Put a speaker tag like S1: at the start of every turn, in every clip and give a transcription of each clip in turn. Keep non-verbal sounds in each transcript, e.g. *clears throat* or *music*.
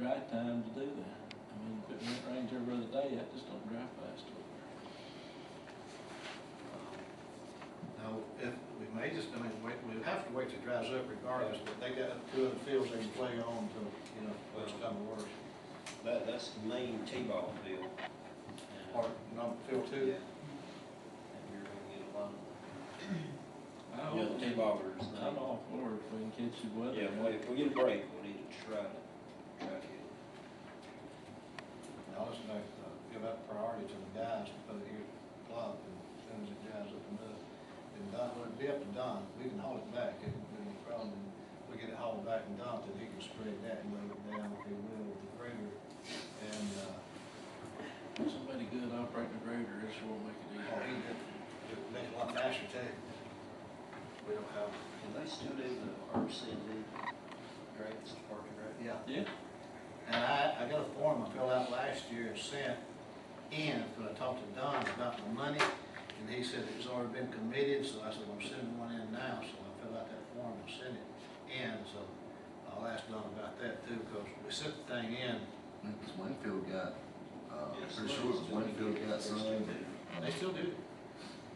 S1: drive time to do that. I mean, if it went rains every other day, I just don't drive fast over there.
S2: Now, if, we may just, I mean, wait, we'll have to wait till it dries up regardless, but they got two other fields they can play on till, you know, it's time to work.
S3: That, that's the main T-ball field.
S2: Or, no, field
S3: Yeah. And
S2: two,
S3: you're gonna get a lot
S1: I
S2: Oh.
S3: of, yeah, the
S1: don't-
S3: T-ballers.
S1: I'm all for it if we can catch the weather.
S3: Yeah, if we, if we get a break, we need to try to, try to get.
S2: now listen, they, uh, give out priority to the guys to put it here, plop, and as soon as it dries up enough. And Don, well, it'd be up to Don, we can haul it back, it wouldn't be any problem, we get it hauled back and dumped, and he can spread that and lay it down if he will with the grader. And, uh,
S1: Somebody good operating a grader, it sure will make it
S2: oh, he
S1: easier.
S2: did, it'd make it a lot faster too. We don't have,
S3: Can they still do the RCD grants, parking rec?
S2: yeah,
S1: Yeah,
S2: And I, I got a form I filled out last year and sent in, but I talked to Don about the money, and he said it's already been committed, so I said, well, I'm sending one in now, so I filled out that form and sent it in, so I'll ask Don about that too, because we sent the thing in,
S4: It's Winfield got, uh,
S3: Yes,
S4: pretty sure it's Winfield got
S3: still
S4: something.
S3: do.
S2: they still do.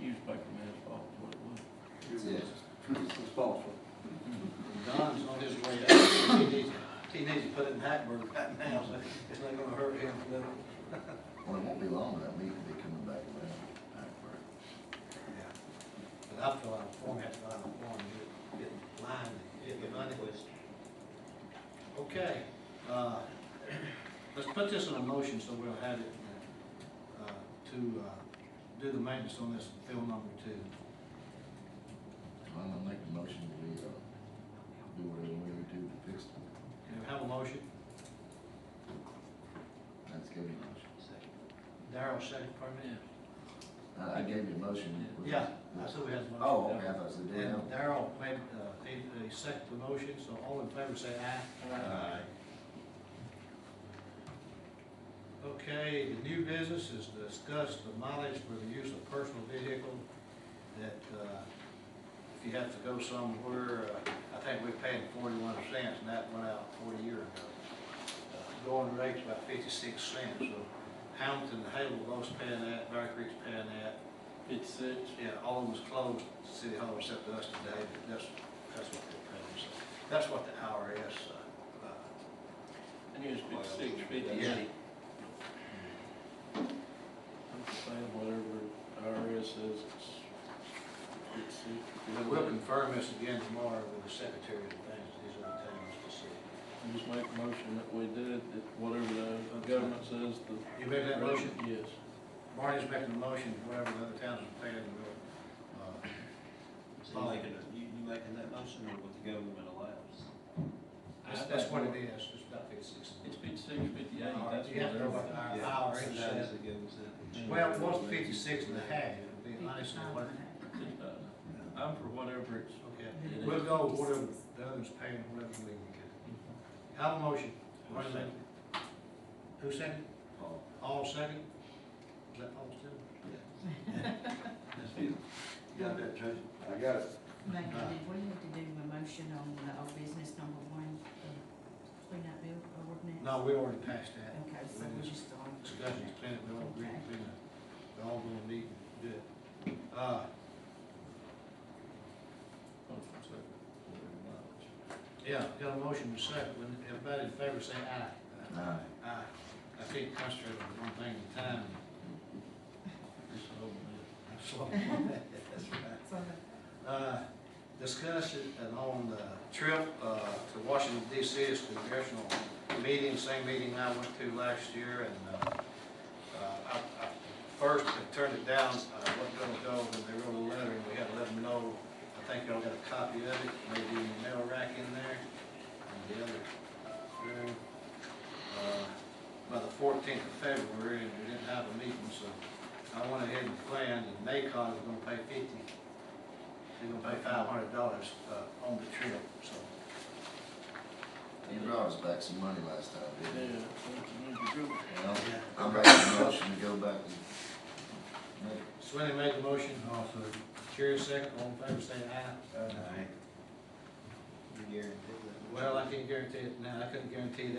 S1: newspaper man's fault, what it was.
S4: Yeah.
S2: And Don's on his way up, he needs, he needs to put it in Hackburg right now, so it's not gonna hurt him a little.
S4: Well, it won't be long, that meeting will be coming back around, back for it.
S2: Yeah. But I filled out a form, had to fill out a form, get, get in line, get the money. Okay, uh, *clears throat* let's put this in a motion so we'll have it, uh, to, uh, do the maintenance on this field number two.
S4: I'm gonna make the motion to be, uh, do whatever we need to do to fix it.
S2: Can we have a motion?
S4: That's gave you a motion.
S2: Darrell, second, pardon me?
S1: Yeah,
S4: Uh, I, I gave you a motion. was-
S2: Yeah, I said we had a motion.
S4: Oh, okay, I thought you said
S2: And Darrell made, uh, he, he seconded the motion, so all in favor say aye.
S4: Aye.
S2: Okay, the new business is discuss the mileage for the use of personal vehicle that, uh, if you have to go somewhere, uh, I think we paid forty-one cents and that went out forty years ago. Uh, Going rate's about fifty-six cents, so Hamilton, Hale, Los paying that, Bear Creek's paying that.
S1: fifty-six,
S2: Yeah, all of them was closed, City Hall except us today, but that's, that's what they're paying, so, that's what the IRS, uh, uh,
S1: I knew it was fifty-six,
S2: Yeah.
S1: fifty-eight. I'm just saying whatever IRS says, it's fifty-six.
S2: And We'll confirm this again tomorrow with the secretary of things, these are the towns to see.
S1: I just make a motion that we did, that whatever the government says, the.
S2: You make that motion?
S1: Yes.
S2: Barney's making a motion, whatever the other towns are paying, we'll, uh,
S3: So you making, a- you, you making that motion or what the government allows?
S2: that's, that's what it is, it's about fifty-six.
S1: It's fifty-six, fifty-eight, that's
S2: You have to go by
S1: whatever.
S2: the hour, it
S3: Sometimes
S2: says.
S3: it goes up.
S2: Well, it was fifty-six and a half, it'll be nice, and what,
S1: I'm for whatever it's.
S2: okay. We'll go with whatever the others paying, whatever we can get. Have a motion. Barney made it. Who second?
S3: Oh,
S2: All second? Is that all still?
S3: yeah.
S2: That's you. You got that, Tracy?
S4: I got it.
S5: Mayor, did we have to do a motion on the old business number one, the cleanup bill ordinance?
S2: Hmm. No, we already passed that.
S5: Okay, so we just on.
S2: Discussion's planned, we all agree, we we all gonna meet and do it. Uh, yeah, got a motion to second, when everybody in favor say aye.
S4: Aye.
S2: Aye. I can't concentrate on one thing at a time.
S1: It's over.
S2: That's all. That's right.
S5: So the
S2: Uh, discuss it and on the trip, uh, to Washington DC, it's the congressional meeting, same meeting I went to last year, and, uh, uh, I, I first I turned it down, uh, I wasn't gonna go, and they wrote a letter, and we had to let them know, I think y'all got a copy of it, maybe in the mail rack in there, and the other room. Uh, By the fourteenth of February, and we didn't have a meeting, so I went ahead and planned, and NACON was gonna pay fifty they're gonna pay five hundred dollars, uh, on the trip, so.
S4: You brought us back some money last time,
S1: Yeah,
S4: didn't you?
S1: that's what you need to do.
S4: Well, I'm making a motion to go back and make
S2: Swinney made the motion. Also. Jerry second, all in favor, say aye.
S3: You guarantee that?
S2: Well, I can't guarantee it now, I couldn't guarantee that